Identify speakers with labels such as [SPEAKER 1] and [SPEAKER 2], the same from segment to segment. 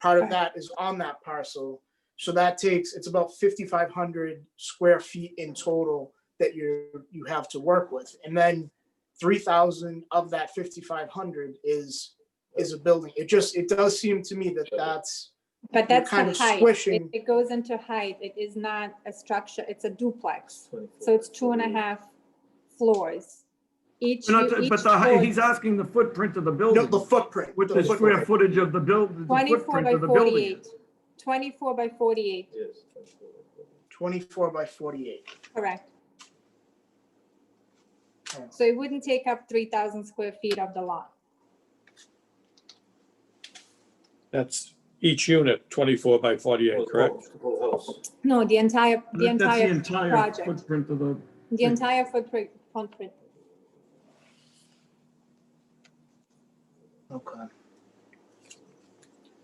[SPEAKER 1] Part of that is on that parcel. So that takes, it's about fifty-five hundred square feet in total that you, you have to work with. And then three thousand of that fifty-five hundred is, is a building. It just, it does seem to me that that's,
[SPEAKER 2] But
[SPEAKER 1] You're
[SPEAKER 2] that's
[SPEAKER 1] kind
[SPEAKER 2] the
[SPEAKER 1] of
[SPEAKER 2] height. It
[SPEAKER 1] squishing.
[SPEAKER 2] it goes into height. It is not a structure. It's a duplex. So it's two and a half floors. Each,
[SPEAKER 3] We're not-
[SPEAKER 2] each
[SPEAKER 3] But the, hi-
[SPEAKER 2] floor-
[SPEAKER 3] he's asking the footprint of the
[SPEAKER 1] no,
[SPEAKER 3] building,
[SPEAKER 1] the footprint.
[SPEAKER 3] with
[SPEAKER 1] the
[SPEAKER 3] the square
[SPEAKER 1] footprint.
[SPEAKER 3] footage of the build, the
[SPEAKER 2] 24
[SPEAKER 3] footprint
[SPEAKER 2] by
[SPEAKER 3] of the building.
[SPEAKER 2] 48. 24 by 48,
[SPEAKER 1] Twenty-four by forty-eight.
[SPEAKER 2] correct.
[SPEAKER 1] Oh.
[SPEAKER 2] So it wouldn't take up 3,000 square feet of the lot.
[SPEAKER 4] That's each unit, 24 by 48, correct?
[SPEAKER 2] No, the entire, the
[SPEAKER 3] That- That's the
[SPEAKER 2] entire,
[SPEAKER 3] entire
[SPEAKER 2] project.
[SPEAKER 3] footprint of the,
[SPEAKER 2] the entire footprint, footprint.
[SPEAKER 1] Okay.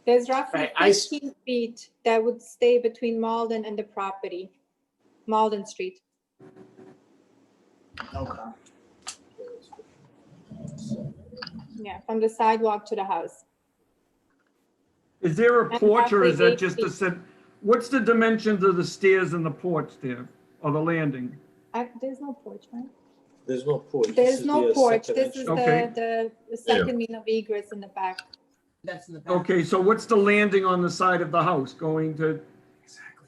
[SPEAKER 2] There's roughly
[SPEAKER 1] Right, I s-
[SPEAKER 2] 15 feet that would stay between Malden and the property, Malden Street.
[SPEAKER 1] Okay.
[SPEAKER 2] Yeah, from the sidewalk to the house.
[SPEAKER 3] is there a
[SPEAKER 2] And
[SPEAKER 3] porch or is
[SPEAKER 2] roughly
[SPEAKER 3] that just a
[SPEAKER 2] eight
[SPEAKER 3] set? What's the dimensions of the stairs and the porch there, or the landing?
[SPEAKER 2] I- There's no porch, right?
[SPEAKER 5] There's no porch. This
[SPEAKER 2] There's
[SPEAKER 5] is
[SPEAKER 2] no
[SPEAKER 5] the
[SPEAKER 2] porch.
[SPEAKER 5] second
[SPEAKER 2] This is
[SPEAKER 5] entrance.
[SPEAKER 3] Okay.
[SPEAKER 2] the, the- the second mean of egress in the back.
[SPEAKER 6] That's in the back.
[SPEAKER 3] Okay, so what's the landing on the side of the house going to,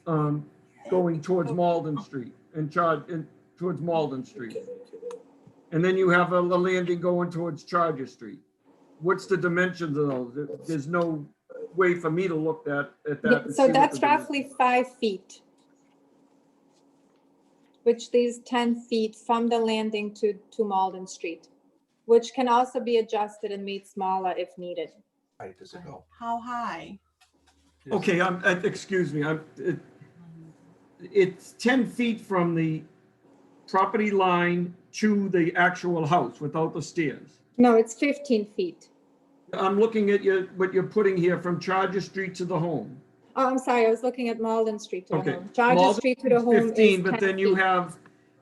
[SPEAKER 3] um, going towards Malden Street and charge, and towards Malden Street? And then you have a l- landing going towards Charger Street. What's the dimensions of those? There- There's no way for me to look that, at that.
[SPEAKER 2] Yeah,
[SPEAKER 3] and see
[SPEAKER 2] So
[SPEAKER 3] what
[SPEAKER 2] that's
[SPEAKER 3] the dimen-
[SPEAKER 2] roughly five feet. Which leaves 10 feet from the landing to, to Malden Street, which can also be adjusted and made smaller if needed.
[SPEAKER 6] How high?
[SPEAKER 3] Okay, I'm, uh, excuse me, I'm, it, it's ten feet from the property line to the actual house without the stairs.
[SPEAKER 2] No, it's 15 feet.
[SPEAKER 3] I'm looking at your, what you're putting here from Charger Street to the home.
[SPEAKER 2] Oh, I'm sorry, I was looking at Malden Street to the
[SPEAKER 3] Okay.
[SPEAKER 2] home. Charger
[SPEAKER 3] Malden
[SPEAKER 2] Street to the
[SPEAKER 3] It's
[SPEAKER 2] home is
[SPEAKER 3] 15, but
[SPEAKER 2] 10
[SPEAKER 3] then you
[SPEAKER 2] feet.
[SPEAKER 3] have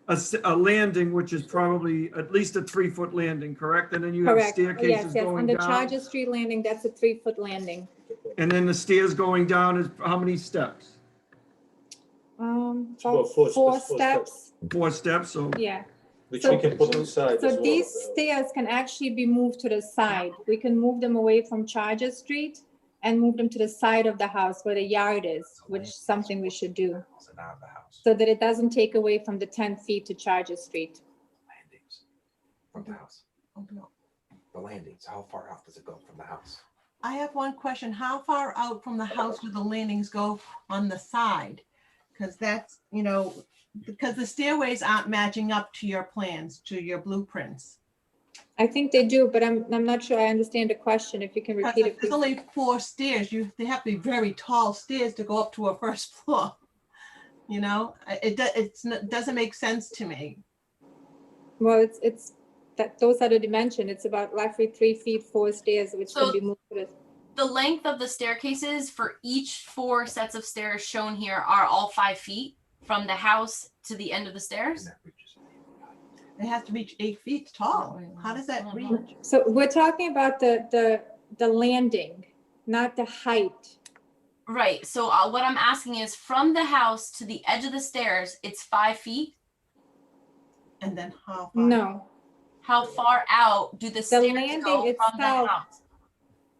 [SPEAKER 3] a, s- a landing, which is probably at least a three-foot landing, correct? And then you have
[SPEAKER 2] Correct. Yes,
[SPEAKER 3] staircases
[SPEAKER 2] yes, on
[SPEAKER 3] going
[SPEAKER 2] the
[SPEAKER 3] down.
[SPEAKER 2] Charger Street landing, that's a three-foot landing.
[SPEAKER 3] And then the stairs going down is how many steps?
[SPEAKER 2] Um,
[SPEAKER 5] Well,
[SPEAKER 2] about
[SPEAKER 5] four
[SPEAKER 2] four
[SPEAKER 5] steps, four steps.
[SPEAKER 2] steps,
[SPEAKER 3] Four steps, so,
[SPEAKER 2] yeah.
[SPEAKER 5] Which
[SPEAKER 2] So-
[SPEAKER 5] we can put inside as
[SPEAKER 2] So
[SPEAKER 5] well. uh,
[SPEAKER 2] these stairs can actually be moved to the side. We can move them away from Charger Street and move them to the side of the house where the yard is, which is something we should do, so that it doesn't take away from the ten feet to Charger Street.
[SPEAKER 7] landings from the house. The landings, how far out does it go from the house?
[SPEAKER 6] I have one question. How far out from the house do the landings go on the side? Because that's, you know, because the stairways aren't matching up to your plans, to your blueprints.
[SPEAKER 2] I think they do, but I'm, I'm not sure I understand the question. If you can
[SPEAKER 6] 'Cause
[SPEAKER 2] repeat
[SPEAKER 6] if
[SPEAKER 2] it,
[SPEAKER 6] There's
[SPEAKER 2] please.
[SPEAKER 6] only four stairs. You, they have to be very tall stairs to go up to a first floor. You know, I- it, do- it's, n- doesn't make sense to me.
[SPEAKER 2] Well, it's, it's, that, those are the dimension. It's about roughly three feet, four stairs, which can
[SPEAKER 8] So-
[SPEAKER 2] be moved to the
[SPEAKER 8] The length of the staircases for each four sets of stairs shown here are all five feet from the house to the end of the
[SPEAKER 7] And
[SPEAKER 8] stairs.
[SPEAKER 7] that reaches-
[SPEAKER 6] It has to reach eight feet tall. How does that reach?
[SPEAKER 2] So we're talking about the, the, the landing, not the height.
[SPEAKER 8] Right. So uh, what I'm asking is from the house to the edge of the stairs, it's five feet.
[SPEAKER 6] And then how? far?
[SPEAKER 2] No,
[SPEAKER 8] How far out do the stairs
[SPEAKER 2] landing
[SPEAKER 8] go from the
[SPEAKER 2] itself-
[SPEAKER 8] house?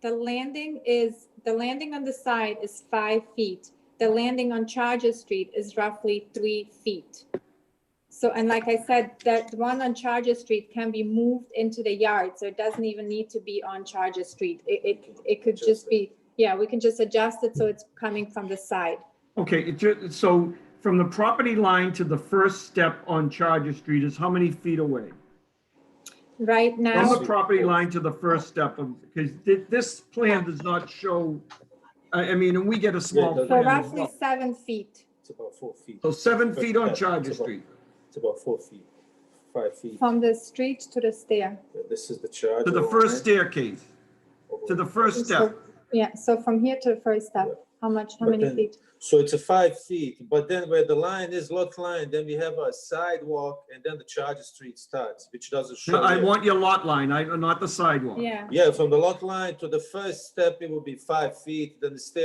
[SPEAKER 2] the landing is, the landing on the side is five feet. The landing on Charger Street is roughly three feet. So, and like I said, that one on Charger Street can be moved into the yard, so it doesn't even need to be on Charger Street. It, it, it could just be, yeah, we can just adjust it so it's coming from the side.
[SPEAKER 3] okay, it ju- so from the property line to the first step on Charger Street is how many feet away?
[SPEAKER 2] Right
[SPEAKER 3] From
[SPEAKER 2] now,
[SPEAKER 3] the property line to the first step of, because thi- this plan does not show, I, I mean, and we get a small
[SPEAKER 5] Yeah, it
[SPEAKER 2] we're
[SPEAKER 3] plan as
[SPEAKER 2] roughly
[SPEAKER 3] well.
[SPEAKER 2] seven feet.
[SPEAKER 5] It's about four feet.
[SPEAKER 3] So seven feet on
[SPEAKER 5] It's
[SPEAKER 3] Charger
[SPEAKER 5] about-
[SPEAKER 3] Street.
[SPEAKER 5] It's about four feet, five feet. Uh,
[SPEAKER 2] From the street to the stair.
[SPEAKER 5] This is the charge.
[SPEAKER 3] To the first staircase, to the first step.
[SPEAKER 2] Yeah, so from here to the first step, How much, how
[SPEAKER 5] But
[SPEAKER 2] many
[SPEAKER 5] then-
[SPEAKER 2] feet?
[SPEAKER 5] So it's a five feet, but then where the line is, lot line, then we have a sidewalk and then the charger street starts, which doesn't show.
[SPEAKER 3] No, I
[SPEAKER 5] here.
[SPEAKER 3] want your lot line, I, not the sidewalk.
[SPEAKER 2] Yeah.
[SPEAKER 5] Yeah, from the lot line to the first step, it will be five feet, then the stairs